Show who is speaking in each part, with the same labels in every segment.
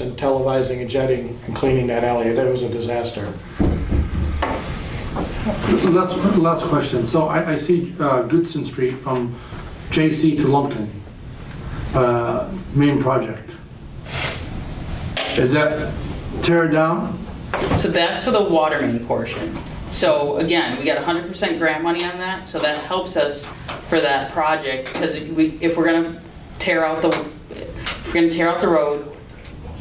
Speaker 1: and televising and jetting and cleaning that alley. That was a disaster.
Speaker 2: Last, last question. So I, I see uh, Goodson Street from JC to Lumpkin, uh, main project. Is that tear it down?
Speaker 3: So that's for the water main portion. So again, we got 100% grant money on that, so that helps us for that project, because we, if we're gonna tear out the, if we're gonna tear out the road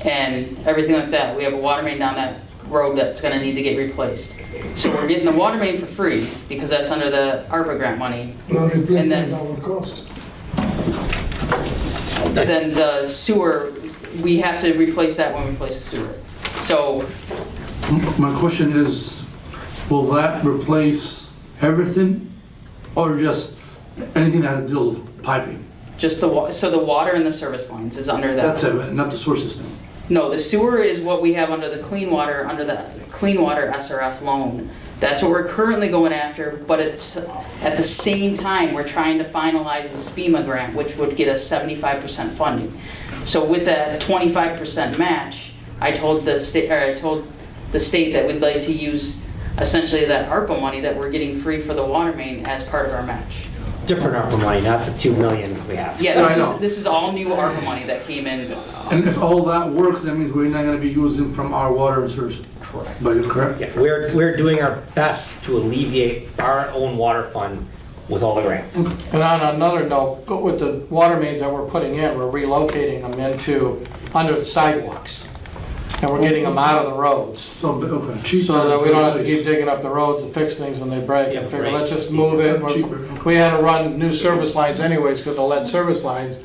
Speaker 3: and everything like that, we have a water main down that road that's gonna need to get replaced. So we're getting the water main for free, because that's under the ARPA grant money.
Speaker 4: Well,
Speaker 3: And
Speaker 4: replacement
Speaker 3: then-
Speaker 4: is our cost.
Speaker 3: Then the sewer, we have to replace that when we replace the sewer. So
Speaker 2: M- My question is, will that replace everything or just anything that has deals with piping?
Speaker 3: just the, wa- so the water and the service lines is under that.
Speaker 2: That's it, not the sewer system.
Speaker 3: No, the sewer is what we have under the clean water, under the clean water SRF loan. That's what we're currently going after, but it's, at the same time, we're trying to finalize this FEMA grant, which would get us seventy-five percent funding. So with that twenty-five percent match, I told the state, or I told the state that we'd like to use essentially that ARPA money that we're getting free for the water main as part of our match.
Speaker 5: Different ARPA money, not the 2 million we have.
Speaker 3: Yeah, this
Speaker 2: I know.
Speaker 3: is, this is all new ARPA money that came in.
Speaker 2: And if all that works, that means we're not gonna be using from our water and sewer. Correct. But you're correct?
Speaker 5: Yeah, We're, we're doing our best to alleviate our own water fund with all the grants.
Speaker 1: And on another note, go with the water mains that we're putting in, we're relocating them into, under the sidewalks. And we're getting them out of the roads.
Speaker 2: So, okay, cheaper.
Speaker 1: So that we don't have to keep digging up the roads to fix things when they break.
Speaker 5: Yeah,
Speaker 1: And figure,
Speaker 5: right.
Speaker 1: let's just move it.
Speaker 2: Cheaper.
Speaker 1: We had to run new service lines anyways because of lead service lines.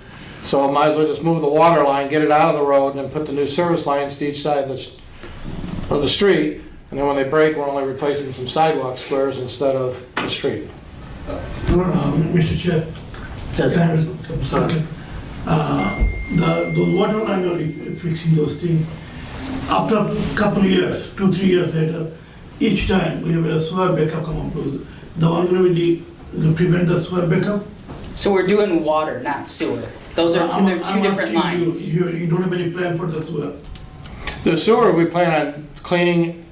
Speaker 1: So might as well just move the water line, get it out of the road and then put the new service lines to each side of the, s- of the street. And then when they break, we're only replacing some sidewalk squares instead of the street.
Speaker 4: Um, Mr. Chair,
Speaker 2: Yes.
Speaker 4: Sam, second. Uh, The the water line are re- fixing those things. After a couple of years, two, three years later, each time we have a sewer backup come up. with- The one going to the prevent the sewer backup.
Speaker 3: So we're doing water, not sewer. Those are, two-
Speaker 4: I'm-
Speaker 3: they're two
Speaker 4: I'm
Speaker 3: different
Speaker 4: asking you,
Speaker 3: lines.
Speaker 4: You you don't have any plan for the sewer?
Speaker 1: The sewer, we plan on cleaning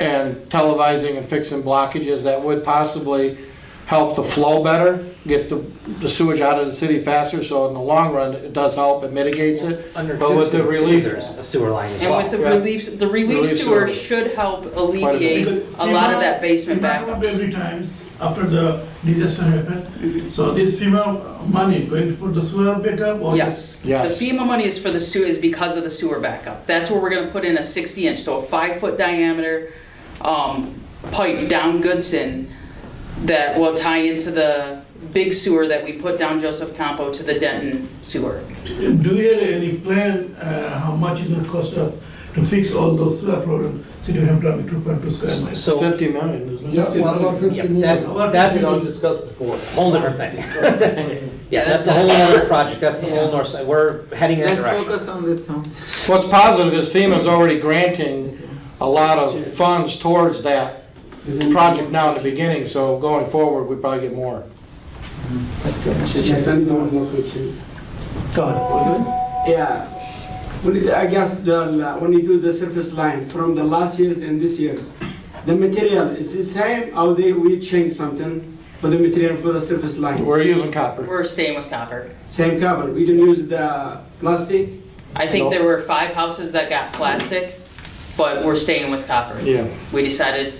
Speaker 1: and televising and fixing blockages that would possibly help the flow better, get the the sewage out of the city faster, so in the long run, it does help, it mitigates it.
Speaker 5: Under
Speaker 1: But with the
Speaker 5: Gibson,
Speaker 1: relief-
Speaker 5: There's a sewer line as
Speaker 3: And with
Speaker 5: well.
Speaker 3: the
Speaker 1: Yeah.
Speaker 3: relief, the relief
Speaker 1: Relief sewer.
Speaker 3: sewer should help alleviate a lot of that basement
Speaker 4: back up
Speaker 3: backups. Mm-hmm.
Speaker 4: every times after the disaster happened. So this FEMA money going to put the sewer backup or?
Speaker 3: Yes. The
Speaker 1: Yes.
Speaker 3: FEMA money is for the sewer, is because of the sewer backup. That's where we're gonna put in a 60 inch, so a five foot diameter um, pipe down Goodson that will tie into the big sewer that we put down Joseph Campo to the Denton sewer.
Speaker 4: Do you have any plan, uh, how much it will cost us to fix all those sewer problems, city of Hamtramck, 2.2 square miles?
Speaker 5: So,
Speaker 1: 50 million, isn't it?
Speaker 6: Yeah, one about
Speaker 5: yeah,
Speaker 6: fifty million.
Speaker 5: that- that's a
Speaker 6: discussed before.
Speaker 5: whole different thing. Yeah, that's a whole other project, that's the whole north side, we're heading that
Speaker 7: Let's
Speaker 5: direction.
Speaker 7: focus on the town.
Speaker 1: What's positive is FEMA's already granting a lot of funds towards that project now in the beginning, so going forward, we probably get more.
Speaker 7: Yes, and one more question. Yeah. When it- I guess the, when you do the surface line from the last years and this years, the material is the same or they, we change something for the material for the surface line?
Speaker 1: We're using copper.
Speaker 3: We're staying with copper.
Speaker 7: Same cover, we don't use the plastic?
Speaker 3: I think there were five houses that got plastic, but we're staying with copper.
Speaker 1: Yeah.
Speaker 3: We decided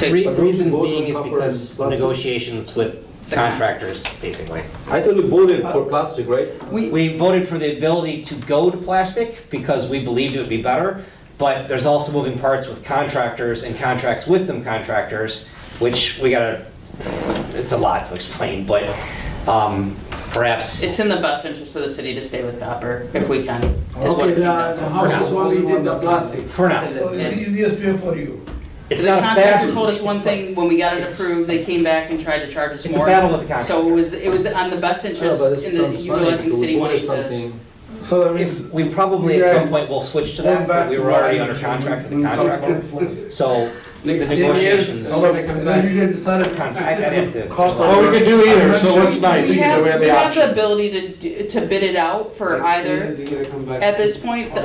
Speaker 5: Re-
Speaker 3: to,
Speaker 5: Reason
Speaker 6: Both
Speaker 5: being is
Speaker 6: copper and
Speaker 5: because
Speaker 6: plastic.
Speaker 5: negotiations with contractors, basically.
Speaker 6: I thought you voted for plastic, right?
Speaker 5: Uh, We voted for the ability to go to plastic because we believed it would be better, but there's also moving parts with contractors and contracts with them contractors, which we gotta, it's a lot to explain, but um, perhaps,
Speaker 3: it's in the best interest of the city to stay with copper if we can. is what
Speaker 7: Okay,
Speaker 3: it came
Speaker 7: the,
Speaker 3: down to.
Speaker 7: the houses when we did the plastic.
Speaker 5: for now,
Speaker 4: Or is it easiest way for you?
Speaker 5: it's
Speaker 3: The
Speaker 5: not a
Speaker 3: contractor
Speaker 5: bad.
Speaker 3: told us one thing, when we got it
Speaker 5: It's-
Speaker 3: approved, they came back and tried to charge us more.
Speaker 5: It's a battle with the contractor.
Speaker 3: So it was, it was on the best interest in the utilizing city money to.
Speaker 6: So that
Speaker 5: If, we probably at some point will switch to that, but we were already under contract
Speaker 6: Mm-hmm.
Speaker 5: with the contractor, so the
Speaker 7: Next ten
Speaker 5: negotiations.
Speaker 2: Then you guys decided.
Speaker 5: I'd have to-
Speaker 1: Well, we could do either, so what's nice,
Speaker 3: We
Speaker 1: either
Speaker 3: have,
Speaker 1: we have
Speaker 3: we
Speaker 1: the
Speaker 3: have
Speaker 1: option.
Speaker 3: the ability to, do- to bid it out for either, at this point, the